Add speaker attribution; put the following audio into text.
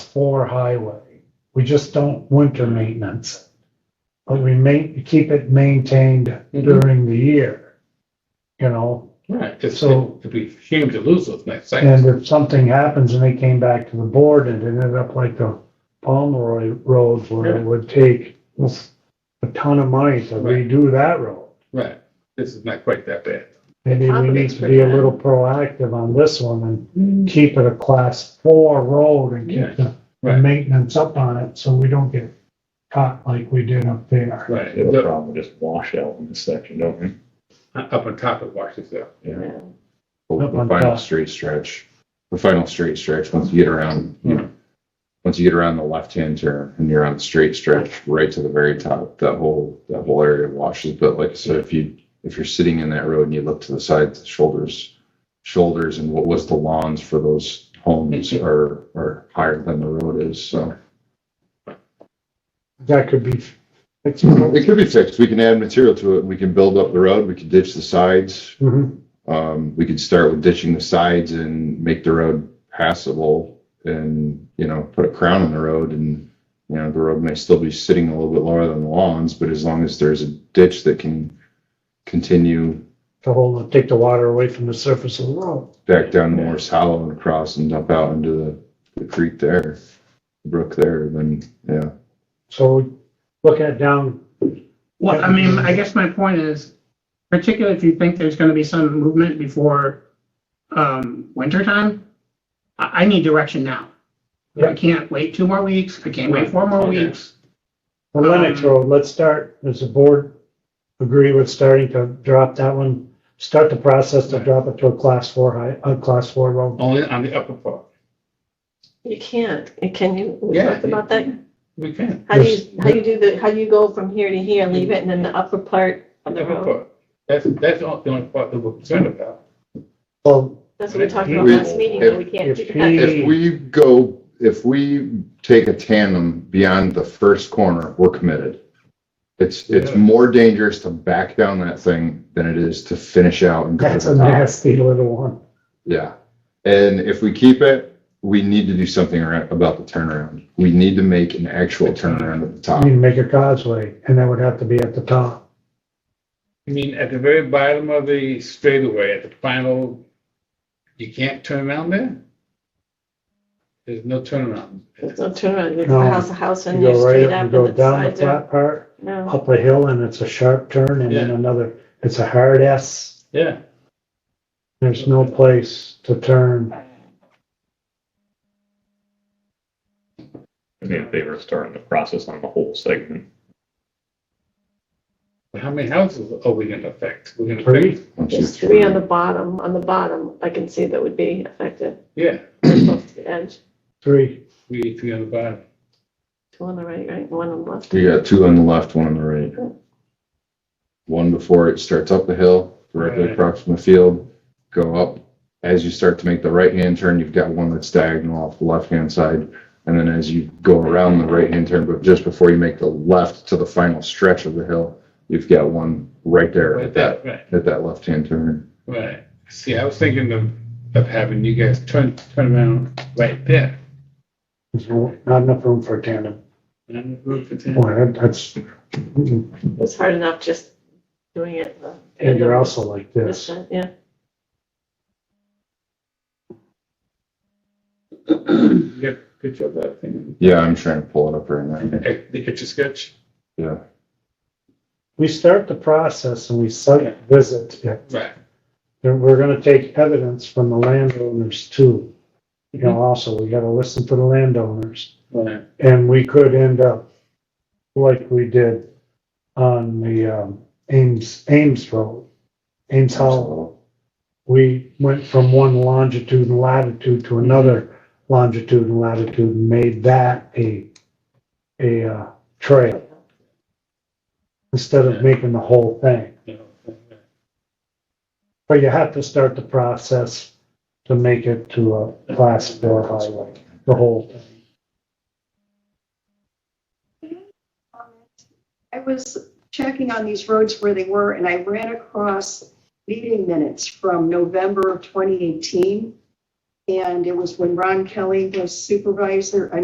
Speaker 1: for highway. We just don't winter maintenance. it. But we ma- keep it maintained
Speaker 2: Mm-hmm.
Speaker 1: during the year. You know,
Speaker 2: Right, because
Speaker 1: So-
Speaker 2: it'd be shame to lose those nice
Speaker 1: and
Speaker 2: sites.
Speaker 1: if something happens and they came back to the board and it ended up like the Pomeroy Road where it would take a ton of money to
Speaker 2: Right.
Speaker 1: redo that road.
Speaker 2: Right, this is not quite that bad.
Speaker 1: Maybe we need to be a little proactive on this one and keep it a class four road and keep the the
Speaker 2: Right.
Speaker 1: maintenance up on it, so we don't get caught like we did up there.
Speaker 2: Right,
Speaker 3: The
Speaker 2: it's up-
Speaker 3: problem with just washout in this section, don't we?
Speaker 2: up on top of Washington.
Speaker 3: Yeah.
Speaker 1: Up
Speaker 4: The
Speaker 1: on
Speaker 4: final
Speaker 1: top.
Speaker 4: straight stretch, the final straight stretch, once you get around, you know, once you get around the left-hand turn and you're on the straight stretch right to the very top, that whole, that whole area washes. But like I said, if you, if you're sitting in that road and you look to the sides, shoulders, shoulders and what was the lawns for those homes are, are higher than the road is, so.
Speaker 1: That could be fixed.
Speaker 4: It could be fixed. We can add material to it. We can build up the road. We can ditch the sides.
Speaker 1: Mhm.
Speaker 4: Um, we could start with ditching the sides and make the road passable and, you know, put a crown on the road and, you know, the road may still be sitting a little bit lower than the lawns, but as long as there's a ditch that can continue
Speaker 1: To hold, take the water away from the surface of the road.
Speaker 4: back down Morris Hollow and across and dump out into the, the creek there, the brook there, then, yeah.
Speaker 1: So looking at down,
Speaker 5: Well, I mean, I guess my point is, particularly if you think there's gonna be some movement before, um, winter time, I, I need direction now. I
Speaker 1: Yeah.
Speaker 5: can't wait two more weeks, I can't wait four more
Speaker 2: Okay.
Speaker 5: weeks.
Speaker 1: the Lennox
Speaker 5: Um,
Speaker 1: Road, let's start, does the board agree with starting to drop that one? Start the process to
Speaker 2: Right.
Speaker 1: drop it to a class four high, a class four road?
Speaker 2: Only on the upper part.
Speaker 6: You can't, can you, we
Speaker 2: Yeah.
Speaker 6: talked about that?
Speaker 2: We can.
Speaker 6: How do
Speaker 1: Yes.
Speaker 6: you, how do you do the, how do you go from here to here, leave it, and then the upper part of the
Speaker 2: Upper
Speaker 6: road?
Speaker 2: part. That's, that's the only the only part that we're concerned about.
Speaker 1: Well,
Speaker 6: That's what we talked about
Speaker 4: If-
Speaker 6: last meeting, but we can't
Speaker 1: if
Speaker 6: do
Speaker 1: he-
Speaker 6: that.
Speaker 4: If we go, if we take a tandem beyond the first corner, we're committed. It's, it's
Speaker 2: Yeah.
Speaker 4: more dangerous to back down that thing than it is to finish out and go
Speaker 1: that's
Speaker 4: to
Speaker 1: a
Speaker 4: the top.
Speaker 1: nasty little one.
Speaker 4: Yeah. And if we keep it, we need to do something around, about the turnaround. We need to make an actual turnaround at the
Speaker 1: You
Speaker 4: top.
Speaker 1: need to make a causeway, and that would have to be at the top.
Speaker 2: I mean, at the very bottom of the straightaway, at the final, you can't turn around there? There's no turnaround.
Speaker 6: There's no turnaround, you
Speaker 1: No.
Speaker 6: go house to house
Speaker 1: You
Speaker 6: and you're
Speaker 1: go right
Speaker 6: straight
Speaker 1: up,
Speaker 6: up
Speaker 1: you
Speaker 6: and
Speaker 1: go
Speaker 6: the
Speaker 1: down the
Speaker 6: sides are,
Speaker 1: flat part,
Speaker 6: no.
Speaker 1: up a hill, and it's a sharp turn, and then
Speaker 2: Yeah.
Speaker 1: another, it's a hard S.
Speaker 2: Yeah,
Speaker 1: There's no place to turn.
Speaker 3: I mean, if they were starting the process on the whole segment.
Speaker 2: but how many houses are we gonna affect? We're gonna
Speaker 1: Three.
Speaker 2: affect,
Speaker 4: One, two,
Speaker 6: There's three on
Speaker 4: three.
Speaker 6: the bottom, on the bottom, I can see that would be affected,
Speaker 2: yeah,
Speaker 6: close to the edge,
Speaker 1: Three,
Speaker 2: three, three on the bottom.
Speaker 6: two on the right, right, one on the left.
Speaker 4: We got two on the left, one on the right. One before it starts up the hill, directly
Speaker 2: Right.
Speaker 4: across from the field, go up. As you start to make the right-hand turn, you've got one that's diagonal off the left-hand side. And then as you go around the right-hand turn, but just before you make the left to the final stretch of the hill, you've got one right there
Speaker 2: Right
Speaker 4: at that,
Speaker 2: there, right,
Speaker 4: at that left-hand turn.
Speaker 2: right. See, I was thinking of, of having you guys turn, turn around right there.
Speaker 1: there's no- not enough room for a tandem.
Speaker 2: And I'm gonna put that-
Speaker 1: Boy, that- that's, and
Speaker 6: It's hard enough just doing it. uh,
Speaker 1: you're also like
Speaker 6: this
Speaker 1: this.
Speaker 6: side, Yeah.
Speaker 2: You got a picture of that thing?
Speaker 4: Yeah, I'm trying to pull it up right now.
Speaker 2: Eh, The picture sketch?
Speaker 4: Yeah.
Speaker 1: We start the process and we site visit it.
Speaker 2: Right.
Speaker 1: And we're gonna take evidence from the landowners too. You know, also, we gotta listen to the landowners.
Speaker 2: Right.
Speaker 1: And we could end up like we did on the um, Ames, Ames Road, Ames Hollow. We went from one longitude and latitude to another longitude and latitude and made that a, a uh, trail instead of making the whole thing.
Speaker 2: Yeah.
Speaker 1: But you have to start the process to make it to a class four highway, the whole thing.
Speaker 7: I was checking on these roads where they were, and I ran across meeting minutes from November of 2018. And it was when Ron Kelly was supervisor, I